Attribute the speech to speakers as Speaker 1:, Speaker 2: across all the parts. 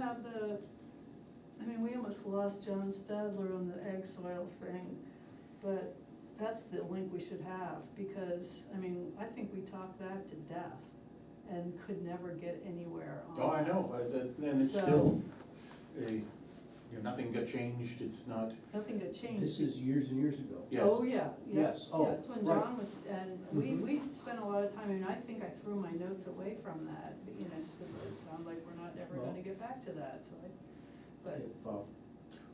Speaker 1: have the, I mean, we almost lost John Stadler on the egg soil thing, but that's the link we should have, because, I mean, I think we talked that to death and could never get anywhere on
Speaker 2: Oh, I
Speaker 1: that.
Speaker 2: know, but that- then it's
Speaker 1: So-
Speaker 2: still, a, you know, nothing got changed, it's not,
Speaker 1: Nothing got changed.
Speaker 3: This is years and years ago.
Speaker 2: yes.
Speaker 1: Oh, yeah, yeah.
Speaker 3: Yes, oh,
Speaker 1: Yeah, That's when
Speaker 3: right.
Speaker 1: John was, and we,
Speaker 3: Mhm.
Speaker 1: we spent a lot of time, and I think I threw my notes away from that, you know, just because it sounded like we're not ever
Speaker 3: Well-
Speaker 1: gonna get back to that, so I, but,
Speaker 3: If, uh,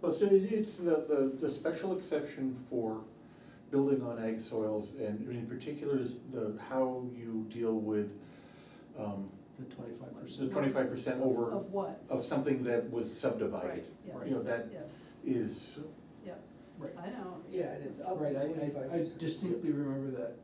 Speaker 2: Well, so it- it's the, the, the special exception for building on ag soils and in particular is the, how you deal with, um,
Speaker 3: The twenty-five
Speaker 2: the
Speaker 3: percent.
Speaker 2: twenty-five percent over
Speaker 1: of what?
Speaker 2: of something that was subdivided.
Speaker 1: Right,
Speaker 2: You know,
Speaker 1: yes,
Speaker 2: that
Speaker 1: yes,
Speaker 2: is,
Speaker 1: yep,
Speaker 3: Right,
Speaker 1: I know.
Speaker 4: Yeah, and it's up
Speaker 3: right,
Speaker 4: to
Speaker 3: I-
Speaker 4: twenty-five
Speaker 3: I, I
Speaker 4: percent.
Speaker 3: distinctly remember that.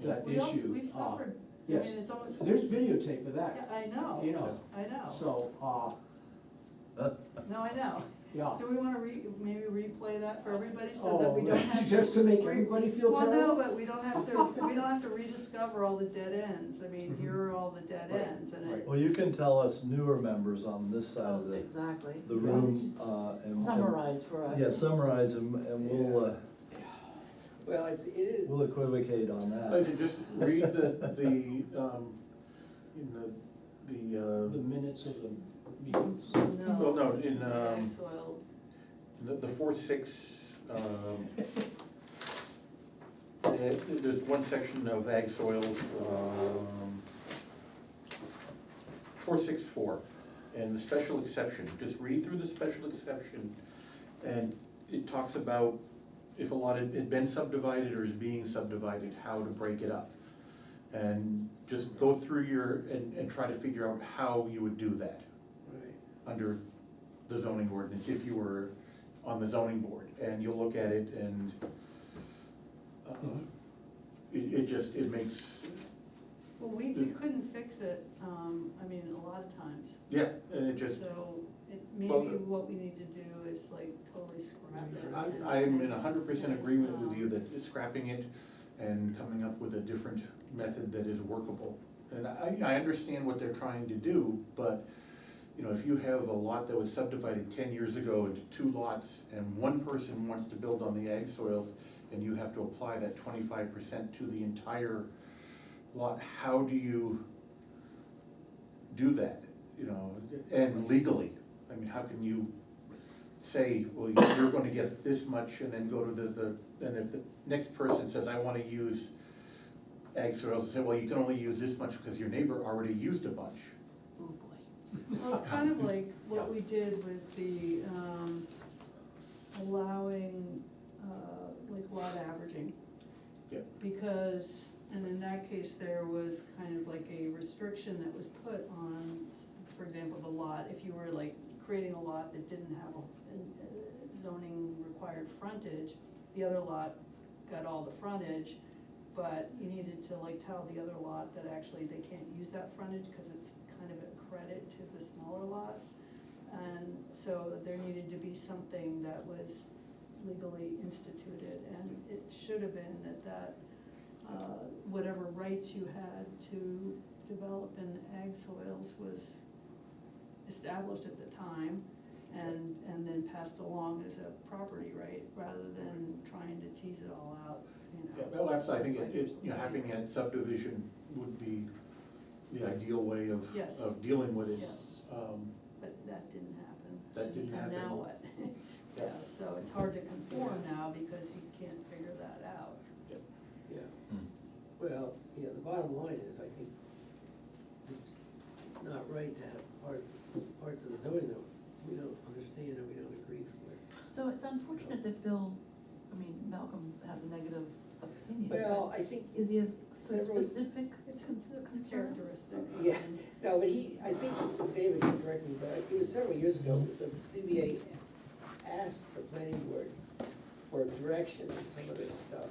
Speaker 1: Yeah.
Speaker 3: that
Speaker 1: We also,
Speaker 3: issue,
Speaker 1: we've
Speaker 3: uh,
Speaker 1: suffered, I mean,
Speaker 3: yes.
Speaker 1: it's almost, yeah,
Speaker 3: There's videotape of that,
Speaker 1: I know,
Speaker 3: you know,
Speaker 1: I
Speaker 4: Oh.
Speaker 1: know,
Speaker 3: so, uh,
Speaker 1: no, I know.
Speaker 3: yeah.
Speaker 1: Do we wanna re, maybe replay that for everybody so that
Speaker 3: Oh,
Speaker 1: we don't have to?
Speaker 3: Just to make
Speaker 1: we-
Speaker 3: everybody feel
Speaker 1: Well, no,
Speaker 3: terrible?
Speaker 1: but we don't have to, we don't have to rediscover all the dead ends, I mean, here are all the dead
Speaker 3: Mm-hmm. Right,
Speaker 1: ends, and it,
Speaker 5: Well, you can tell us newer members on this side of the,
Speaker 6: Exactly.
Speaker 5: the
Speaker 6: Why don't you
Speaker 5: room,
Speaker 6: s-
Speaker 5: uh, and.
Speaker 6: Summarize for us.
Speaker 5: Yeah, summarize them, and we'll, uh,
Speaker 4: Well, it's, it is,
Speaker 5: we'll equivocate on
Speaker 2: I said,
Speaker 5: that.
Speaker 2: just read the, the, um, in the, the,
Speaker 3: The
Speaker 2: uh,
Speaker 3: minutes of the meetings.
Speaker 1: no.
Speaker 2: well, no, in, um,
Speaker 1: Ag soil,
Speaker 2: The, the four, six, um, there- there's one section of ag soils, um, four, six, four, and the special exception, just read through the special exception. And it talks about if a lot had had been subdivided or is being subdivided, how to break it up. And just go through your, and, and try to figure out how you would do that
Speaker 4: right,
Speaker 2: under the zoning ordinance if you were on the zoning board, and you'll look at it and uh,
Speaker 3: Mhm.
Speaker 2: it, it just, it makes,
Speaker 1: well, we, we couldn't fix it, um, I mean, a lot of times,
Speaker 2: yeah, and it just,
Speaker 1: so it,
Speaker 2: Well,
Speaker 1: maybe
Speaker 2: the-
Speaker 1: what we need to do is like totally scrap it.
Speaker 2: I,
Speaker 1: and- um,
Speaker 2: I'm in hundred percent agreement with you that scrapping it and coming up with a different method that is workable. And I, I understand what they're trying to do, but, you know, if you have a lot that was subdivided ten years ago into two lots, and one person wants to build on the ag soils, and you have to apply that twenty-five percent to the entire lot, how do you do that, you know, and legally? I mean, how can you say, well, you're gonna get this much, and then go to the, the, and if the next person says, I wanna use ag soils, say, well, you can only use this much because your neighbor already used a bunch.
Speaker 6: Oh, boy.
Speaker 1: Well, it's kind of like what we did with the, um, allowing, uh, like lot averaging.
Speaker 2: Yep.
Speaker 1: Because, and in that case, there was kind of like a restriction that was put on, for example, the lot, if you were like creating a lot that didn't have a a zoning required frontage, the other lot got all the frontage, but you needed to like tell the other lot that actually they can't use that frontage because it's kind of a credit to the smaller lot. And so there needed to be something that was legally instituted and it should have been that that, uh, whatever rights you had to develop in ag soils was established at the time and, and then passed along as a property right, rather than trying to tease it all out, you know.
Speaker 2: Yeah, well, absolutely, I think it, it's, you know, having a subdivision would be the ideal way of,
Speaker 1: Yes.
Speaker 2: of dealing with it.
Speaker 1: Yes.
Speaker 2: Um,
Speaker 1: But that didn't happen.
Speaker 2: That didn't
Speaker 1: And now
Speaker 2: happen.
Speaker 1: what?
Speaker 2: Yeah.
Speaker 1: Yeah, so it's hard to conform now because you can't figure that out.
Speaker 2: yeah.
Speaker 4: yeah.
Speaker 5: Hmm.
Speaker 4: Well, yeah, the bottom line is, I think it's not right to have parts, parts of the zoning that we don't understand and we don't agree with.
Speaker 6: So it's unfortunate that Bill, I mean, Malcolm has a negative opinion. but
Speaker 4: Well, I think,
Speaker 6: Is he a s-
Speaker 4: several-
Speaker 6: specific?
Speaker 1: It's a
Speaker 6: Concerns?
Speaker 1: characteristic.
Speaker 4: yeah, no, but he, I think David can correct me, but it was several years ago, the CBA asked the planning board for direction on some of this stuff.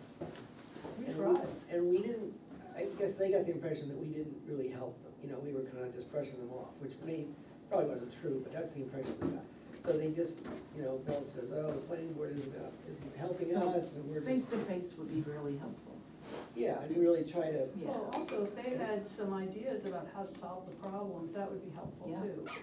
Speaker 1: We
Speaker 4: And
Speaker 1: tried.
Speaker 4: And we didn't, I guess they got the impression that we didn't really help them, you know, we were kind of just brushing them off, which may, probably wasn't true, but that's the impression they got. So they just, you know, Bill says, oh, the planning board isn't, uh, isn't helping
Speaker 6: So
Speaker 4: us, and we're
Speaker 6: Face
Speaker 4: just,
Speaker 6: to face would be really helpful.
Speaker 4: yeah, and really try to
Speaker 6: Yeah.
Speaker 1: Well, also, if they had some ideas about how to solve the problems, that would be helpful
Speaker 6: Yeah.
Speaker 1: too.